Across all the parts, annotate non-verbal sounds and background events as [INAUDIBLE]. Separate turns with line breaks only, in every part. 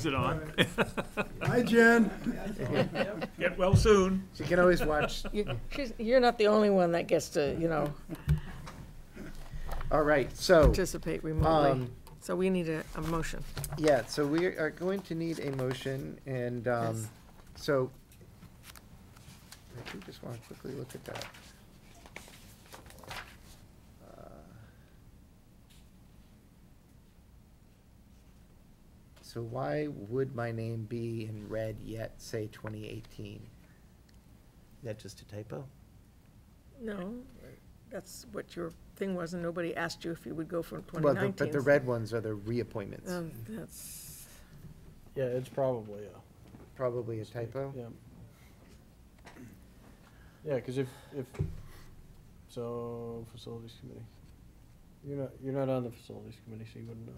Is it on?
Hi, Jen.
Get well soon.
She can always watch.
You- she's- You're not the only one that gets to, you know,
Oh. All right, so,
participate
um,
remotely. So we need a, a motion.
yeah, so we are going to need a motion and, um,
Yes.
so. I do just want to quickly look at that. Uh, So why would my name be in red yet say twenty eighteen? That just a typo?
No, that's what your thing was, and nobody asked you if you would go for
Well, the-
2019.
but the red ones are the reappointments,
Um, That's,
Yeah, it's probably a.
probably a typo.
Yeah. Yeah, because if, if, so, facilities committee. You're not, you're not on the facilities committee, so you wouldn't know.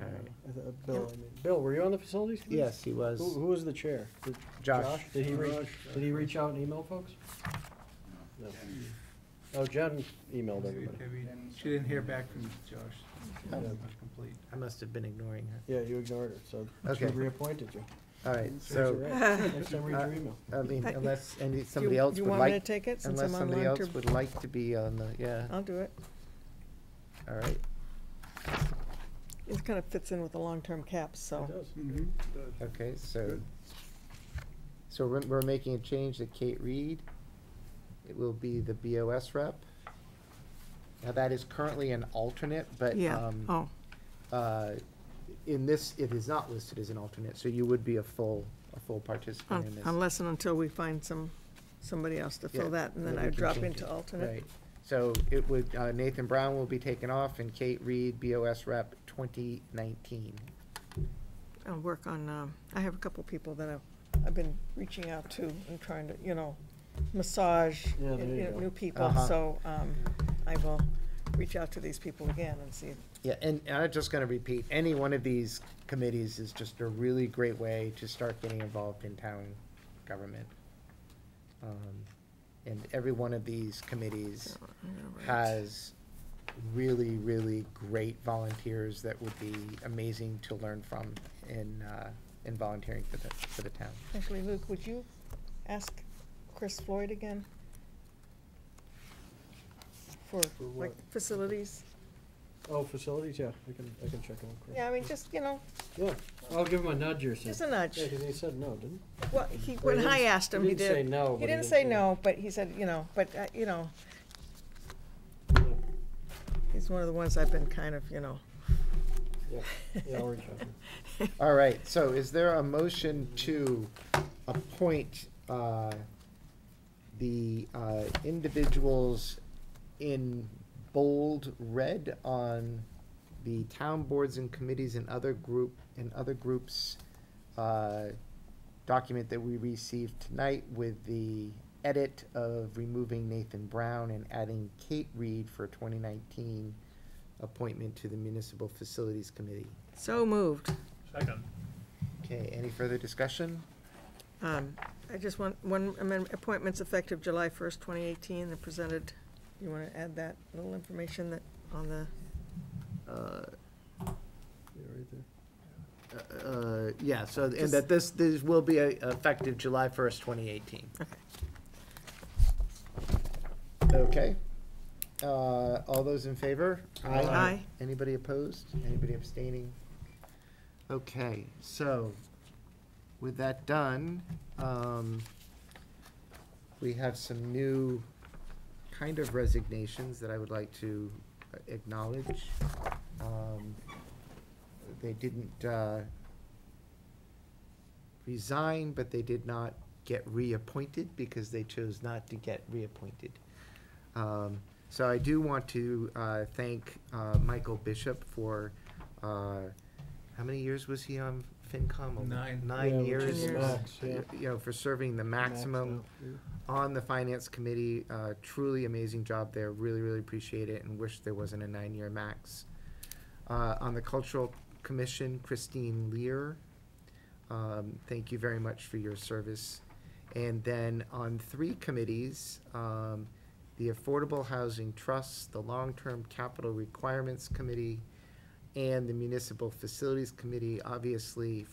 All right.
I th- uh, Bill, I mean, Bill, were you on the facilities committee?
Yes, he was.
Who, who was the chair? Did
Josh.
Did he reach,
Josh.
did he reach out and email folks? No. Oh, Jen emailed everybody.
She didn't hear back from Josh. It's
Oh.
not complete.
I must have been ignoring her.
Yeah, you ignored her, so she
Okay.
reappointed you.
All right,
Serves you
so, uh,
right. Next time, read your email.
I mean, unless, any,
do you
somebody else
you
would
want me to
like,
take it, since
unless
I'm
somebody
online
else
to?
would like to be on the, yeah,
I'll do it. Oh.
all right.
It kind of fits in with the long-term caps, so.
It does.
Okay, so, so we're, we're making a change to Kate Reed. It will be the BOS rep. Now, that is currently an alternate, but,
Yeah,
um,
oh,
uh, in this, it is not listed as an alternate, so you would be a full, a full participant in
un-
this.
unless and until we find some, somebody else to
Yeah,
fill that, and
then
then
we
I
can
drop
change
into
it.
alternate.
Right, so it would, uh, Nathan Brown will be taken off and Kate Reed, BOS rep, twenty nineteen.
I'll work on, um, I have a couple people that I've, I've been reaching out to and trying to, you know, massage
Yeah,
you
there you
know,
go.
new people,
Uh-huh.
so, um, I will reach out to these people again and see.
Yeah, and, and I'm just gonna repeat, any one of these committees is just a really great way to start getting involved in town government. Um, And every one of these committees has really, really great volunteers that would be amazing to learn from in, uh, in volunteering for the, for the town.
Actually, Luke, would you ask Chris Floyd again? For,
For
like,
what?
facilities?
Oh, facilities, yeah, I can, I can check on Chris.
Yeah, I mean, just, you know,
Yeah, I'll give him a nudge or
just
something.
a nudge.
Yeah, 'cause he said no, didn't
Well, he,
Well, he
when I
didn't-
asked
he
him, he
didn't say
did.
no, but
He
he
didn't
did
say
say-
no, but he said, you know, but, uh, you know,
he?
[LAUGHS] he's one of the ones I've been kind of, you know.
Yeah, yeah, yeah, I'll reach out.
All right, so is there a motion to appoint uh, the uh, individuals in bold red on the town boards and committees and other group, and other groups uh, document that we received tonight with the edit of removing Nathan Brown and adding Kate Reed for 2019 appointment to the Municipal Facilities Committee?
[LAUGHS] So moved.
Second.
Okay, any further discussion?
Um, I just want, one amendment, appointments effective July first, twenty eighteen, and presented, you wanna add that little information that, on the,
Uh,
Yeah, right there.
uh, Yeah, so, and that this, this will be uh, effective July 1st, 2018.
Okay.
Okay. Uh, All those in favor?
Aye.
Aye.
Anybody opposed? Anybody abstaining? Okay, so with that done, um, we have some new kind of resignations that I would like to acknowledge. Um, They didn't uh, resign, but they did not get reappointed because they chose not to get reappointed. Um, So I do want to uh, thank uh, Michael Bishop for, uh, how many years was he on FinCom?
Nine.
Yeah,
Nine
which
years.
is the
max, yeah.
You know, for serving the maximum on the Finance Committee. uh, Truly amazing job there. Really, really appreciate it and wish there wasn't a nine-year max. Uh, On the Cultural Commission, Christine Lear. Um, Thank you very much for your service. And then on three committees, um, the Affordable Housing Trust, the Long-Term Capital Requirements Committee, and the Municipal Facilities Committee, obviously